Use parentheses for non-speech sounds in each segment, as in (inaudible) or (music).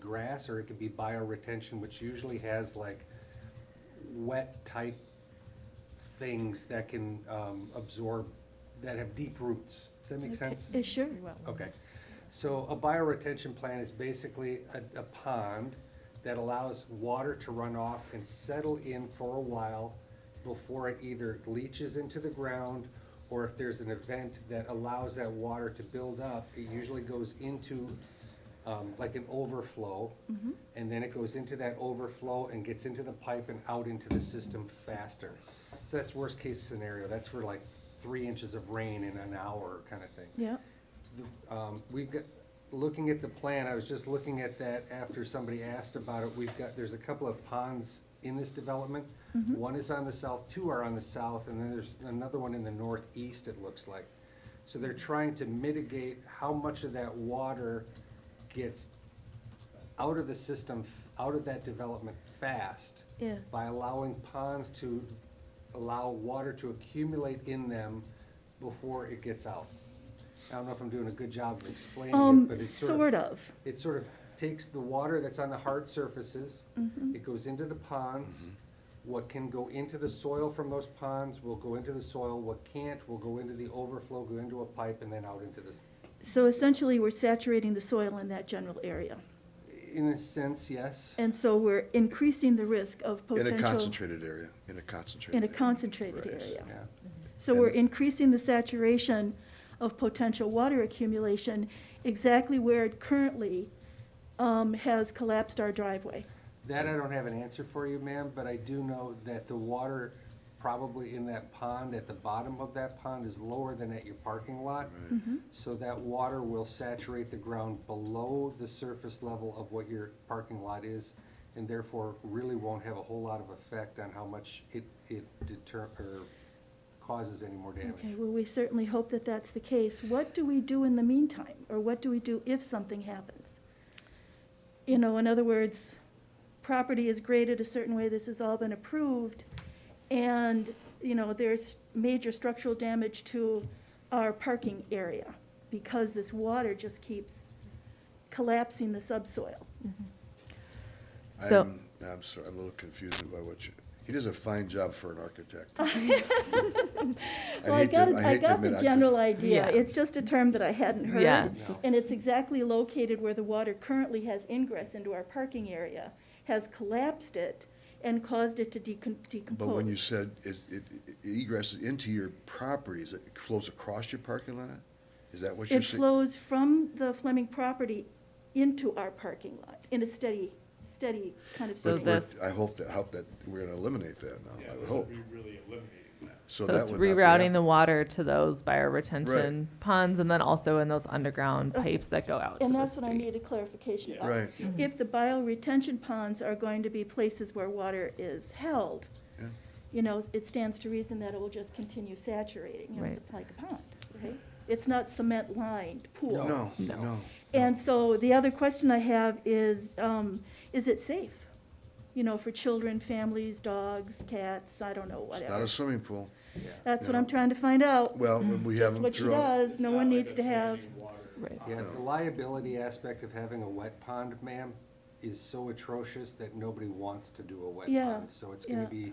grass, or it could be bioretention, which usually has like wet-type things that can um, absorb, that have deep roots. Does that make sense? Uh, Sure. Okay, so a bioretention plant is basically a, a pond that allows water to run off and settle in for a while before it either leaches into the ground, or if there's an event that allows that water to build up, it usually goes into, um, like an overflow. And then it goes into that overflow and gets into the pipe and out into the system faster. So that's worst-case scenario, that's for like three inches of rain in an hour kind of thing. Yeah, The- um, We've got, looking at the plan, I was just looking at that after somebody asked about it. We've got, there's a couple of ponds in this development. One is on the south, two are on the south, and then there's another one in the northeast, it looks like. So they're trying to mitigate how much of that water gets out of the system, out of that development fast yes. by allowing ponds to allow water to accumulate in them before it gets out. I don't know if I'm doing a good job of explaining it, Um, but it's sort sort of, of, it sort of takes the water that's on the hard surfaces, it goes into the ponds. What can go into the soil from those ponds will go into the soil, what can't will go into the overflow, go into a pipe, and then out into the, so essentially, we're saturating the soil in that general area. in a sense, yes. And so we're increasing the risk of In a potential, concentrated area, in a concentrated. in a area. concentrated Right. area. Yeah. So And- we're increasing the saturation of potential water accumulation exactly where it currently um, has collapsed our driveway. That I don't have an answer for you, ma'am, but I do know that the water probably in that pond, at the bottom of that pond, is lower than at your parking lot. So that water will saturate the ground below the surface level of what your parking lot is, and therefore really won't have a whole lot of effect on how much it, it deter, or causes any more Okay, damage. well, we certainly hope that that's the case. What do we do in the meantime? Or what do we do if something happens? You know, in other words, property is graded a certain way, this has all been approved, and, you know, there's major structural damage to our parking area because this water just keeps collapsing the subsoil. (laughs) Mm-hmm. So- I'm, I'm sorry, I'm a little confused by what you, he does a fine job for an (laughs) architect. I'd Well, I hate to- got, I'd I hate to got admit the I could- general idea. Yeah. It's just a term that I hadn't heard. Yeah. No. And it's exactly located where the water currently has ingress into our parking area, has collapsed it and caused it to decom- decompose. But when you said, is, it it egresses into your properties, it flows across your parking lot? Is that what you're It saying? flows from the Fleming property into our parking lot in a steady, steady kind of So But stream. we're- this- I hope that, hope that we're gonna eliminate that now, Yeah, I would this hope. be really eliminating that. So So that it's would not be rerouting the hap- water to those bioretention ponds and then also in those underground Okay. pipes that go out to And the that's what I street. needed clarification Yeah. about. Right, If the bioretention ponds are going to be places where water is held, Yeah. you know, it stands to reason that it will just continue saturating, you know, it's like a pond, right? It's not cement-lined pool. no, No. no. And so the other question I have is, um, is it safe? You know, for children, families, dogs, cats, I don't know, It's not whatever. a swimming pool. That's what no. I'm trying to find out. Well, we have That's them what she throughout. does, It's no not one like needs a to have, standing water Uh, Right. pond. Yeah, the No. liability aspect of having a wet pond, ma'am, is so atrocious that nobody wants to do a wet Yeah, pond. So it's gonna yeah. be,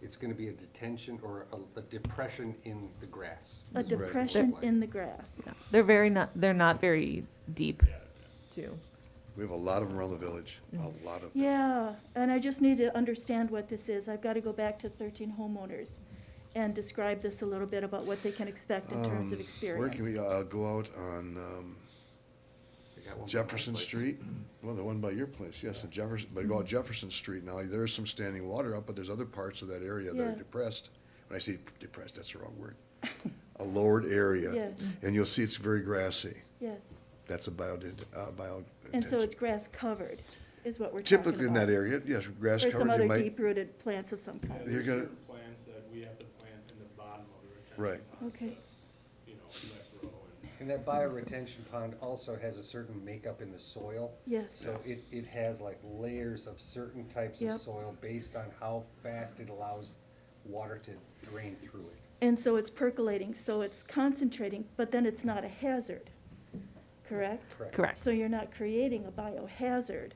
it's gonna be a detention or a, a depression in the grass. a is what it will look depression like. in the grass. No. They're very not, they're not very deep Yeah. too. We have a lot of them around the village, a lot of them. Yeah, and I just need to understand what this is. I've got to go back to thirteen homeowners and describe this a little bit about what they can expect in terms of Um, Where can we, experience. uh, go out on, um, I got one more Jefferson place. Street? Well, the one by your place, yes, the Jefferson, but go out Jefferson Street now, there is some standing water up, but there's other parts of that area that Yeah. are depressed. When I say depressed, that's the wrong word. A lowered area. Yeah. And you'll see it's very grassy. Yes, That's a bio, uh, bio. and so it's grass covered is what we're talking about. Typically in that area, yes, grass Or some covered, other you might, deep-rooted plants of some Yeah, kind. You're There's gonna- certain plants that we have to plant in the bottom of the retention Right. pond Okay. to, You know, let grow and. And that bioretention pond also has a certain makeup in the soil. Yes, So it, it has like layers of certain types Yep. of soil based on how fast it allows water to drain through it. and so it's percolating, so it's concentrating, but then it's not a hazard, correct? Correct. Correct. So you're not creating a biohazard